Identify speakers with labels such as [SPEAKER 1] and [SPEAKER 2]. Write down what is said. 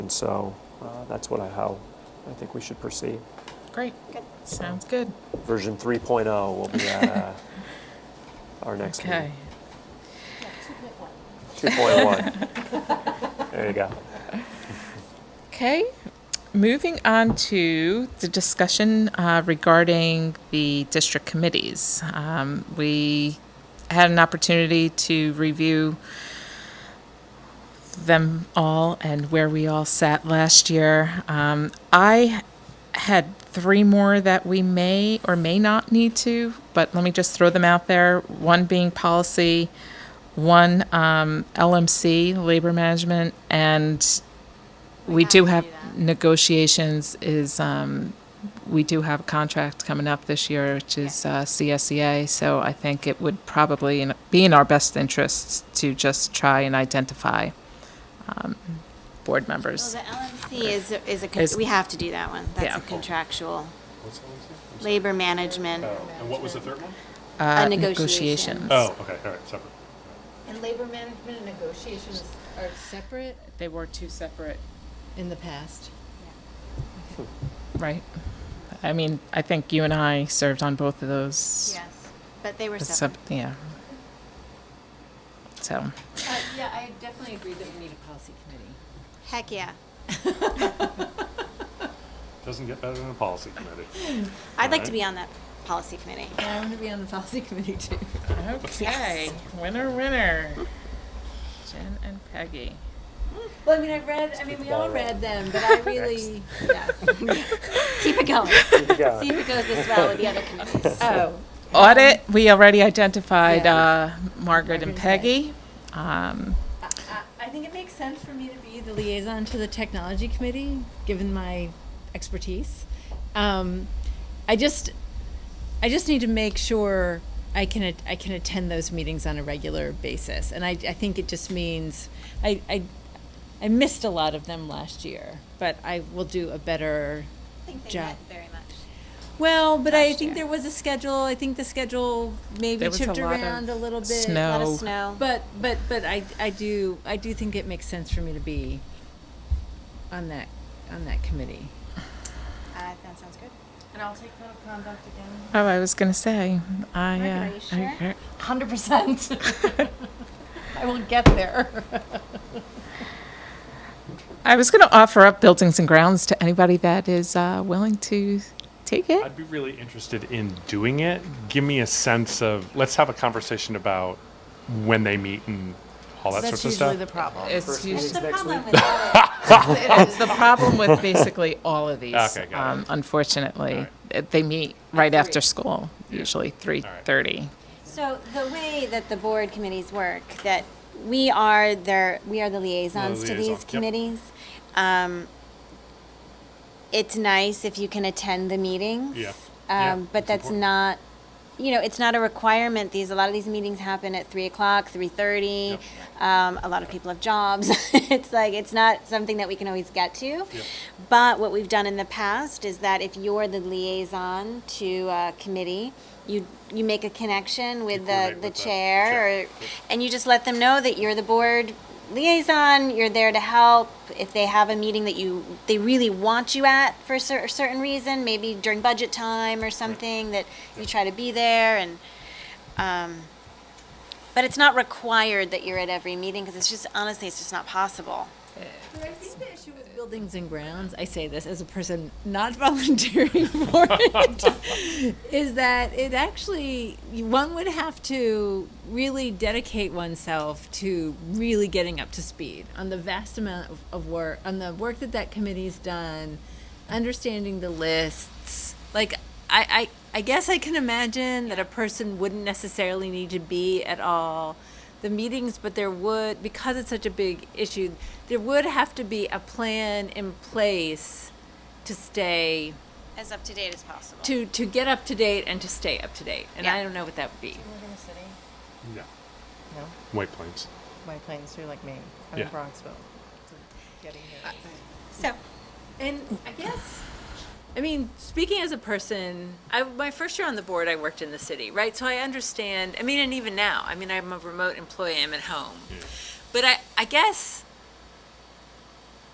[SPEAKER 1] And so uh, that's what I, how I think we should proceed.
[SPEAKER 2] Great.
[SPEAKER 3] Good.
[SPEAKER 2] Sounds good.
[SPEAKER 1] Version 3.0 will be at uh, our next
[SPEAKER 2] Okay.
[SPEAKER 1] meeting. 2.1. There you go.
[SPEAKER 2] Okay. Moving on to the discussion uh, regarding the district committees. Um, we had an opportunity to review them all and where we all sat last year. Um, I had three more that we may or may not need to, but let me just throw them out there. One being policy, one um, LMC, labor management, and we do have negotiations is, um, we do have a contract coming up this year, which is uh, CSEA. So I think it would probably in- be in our best interests to just try and identify um, board
[SPEAKER 3] Well,
[SPEAKER 2] members.
[SPEAKER 3] the LMC is, a- is a, con-
[SPEAKER 2] Is-
[SPEAKER 3] we have to do that one. That's
[SPEAKER 2] Yeah.
[SPEAKER 3] a contractual. Labor management,
[SPEAKER 4] Oh,
[SPEAKER 5] Oh,
[SPEAKER 4] And what was the third one?
[SPEAKER 2] uh,
[SPEAKER 3] a negotiation.
[SPEAKER 2] negotiations.
[SPEAKER 4] Oh, okay, all right, separate.
[SPEAKER 6] And labor management and negotiations are separate
[SPEAKER 2] They were two separate,
[SPEAKER 6] in the past.
[SPEAKER 2] right? I mean, I think you and I served on both of those.
[SPEAKER 3] yes, but they were
[SPEAKER 2] It's
[SPEAKER 3] separate.
[SPEAKER 2] sep- Yeah. So,
[SPEAKER 6] Uh, yeah, I definitely agree that we need a policy committee.
[SPEAKER 3] Heck, yeah.
[SPEAKER 4] Doesn't get better than a policy committee.
[SPEAKER 3] I'd like to
[SPEAKER 4] Alright.
[SPEAKER 3] be on that policy committee.
[SPEAKER 6] Yeah, I want to be on the policy committee too.
[SPEAKER 2] okay, winner, winner. Jen and Peggy.
[SPEAKER 6] Well, I mean, I've read, I mean, we all read them, but I really, yeah.
[SPEAKER 3] Keep it going. See
[SPEAKER 1] Yeah.
[SPEAKER 3] if it goes this well with the other committees.
[SPEAKER 6] Oh,
[SPEAKER 2] Audit, we already identified
[SPEAKER 6] Yeah.
[SPEAKER 2] uh, Margaret and
[SPEAKER 6] and Peg.
[SPEAKER 2] Peggy. Um,
[SPEAKER 6] I, I think it makes sense for me to be the liaison to the technology committee, given my expertise. Um, I just, I just need to make sure I can at- I can attend those meetings on a regular basis, and I, I think it just means I, I I missed a lot of them last year, but I will do a better
[SPEAKER 3] I think they
[SPEAKER 6] job.
[SPEAKER 3] met very much.
[SPEAKER 6] Well, but I
[SPEAKER 2] last
[SPEAKER 6] think
[SPEAKER 2] year.
[SPEAKER 6] there was a schedule. I think the schedule maybe
[SPEAKER 2] There was a
[SPEAKER 6] chipped
[SPEAKER 2] lot of
[SPEAKER 6] around a little bit.
[SPEAKER 2] snow.
[SPEAKER 3] Let
[SPEAKER 2] Oh.
[SPEAKER 3] us know.
[SPEAKER 6] But but but I I do I do think it makes sense for me to be on that on that committee.
[SPEAKER 3] Uh, that sounds good.
[SPEAKER 5] And I'll take code of conduct again.
[SPEAKER 2] oh, I was gonna say, I.
[SPEAKER 3] Margaret,
[SPEAKER 2] uh,
[SPEAKER 3] are you sure?
[SPEAKER 2] I-
[SPEAKER 5] Hundred percent. I will get there.
[SPEAKER 2] I was gonna offer up buildings and grounds to anybody that is uh, willing to take it.
[SPEAKER 4] I'd be really interested in doing it. Give me a sense of, let's have a conversation about when they meet and all that
[SPEAKER 5] That's
[SPEAKER 4] sorts of
[SPEAKER 5] usually the
[SPEAKER 4] stuff.
[SPEAKER 5] problem.
[SPEAKER 2] It's
[SPEAKER 3] That's
[SPEAKER 2] usually,
[SPEAKER 3] the problem with all of
[SPEAKER 2] it is the problem with basically all of these.
[SPEAKER 4] Okay, got it.
[SPEAKER 2] um, Unfortunately,
[SPEAKER 4] All
[SPEAKER 2] Uh, they meet right after school, usually three
[SPEAKER 4] All right.
[SPEAKER 2] thirty.
[SPEAKER 3] So the way that the board committees work, that we are their, we are the liaisons to
[SPEAKER 4] liaison,
[SPEAKER 3] these
[SPEAKER 4] yep.
[SPEAKER 3] committees. Um, It's nice if you can attend the meetings.
[SPEAKER 4] Yeah. Yeah,
[SPEAKER 3] Um, but that's
[SPEAKER 4] important.
[SPEAKER 3] not, you know, it's not a requirement. These, a lot of these meetings happen at three o'clock, three thirty. Um, a lot of people have jobs. It's like, it's not something that we can always get to. But what we've done in the past is that if you're the liaison to a committee, you, you make a connection with the,
[SPEAKER 4] coordinate
[SPEAKER 3] the
[SPEAKER 4] with the
[SPEAKER 3] chair or,
[SPEAKER 4] chair.
[SPEAKER 3] and you just let them know that you're the board liaison, you're there to help. If they have a meeting that you, they really want you at for a cer- certain reason, maybe during budget time or something, that you try to be there and, um, but it's not required that you're at every meeting, because it's just, honestly, it's just not possible.
[SPEAKER 6] But I think the issue with buildings and grounds, I say this as a person not volunteering for it, is that it actually, one would have to really dedicate oneself to really getting up to speed on the vast amount of, of work, on the work that that committee's done, understanding the lists. Like, I, I, I guess I can imagine that a person wouldn't necessarily need to be at all the meetings, but there would, because it's such a big issue, there would have to be a plan in place to stay,
[SPEAKER 3] As up to date as possible.
[SPEAKER 6] to, to get up to date and to stay up to date. And I
[SPEAKER 3] Yeah.
[SPEAKER 6] don't know what that would be.
[SPEAKER 5] live in the city?
[SPEAKER 4] No,
[SPEAKER 5] No,
[SPEAKER 4] White Plains.
[SPEAKER 5] White Plains, you're like me. I'm
[SPEAKER 4] Yeah.
[SPEAKER 5] in Bronxville. So Getting here.
[SPEAKER 3] So,
[SPEAKER 6] And I guess, I mean, speaking as a person, I, my first year on the board, I worked in the city, right? So I understand, I mean, and even now, I mean, I'm a remote employee, I'm at home. But I, I guess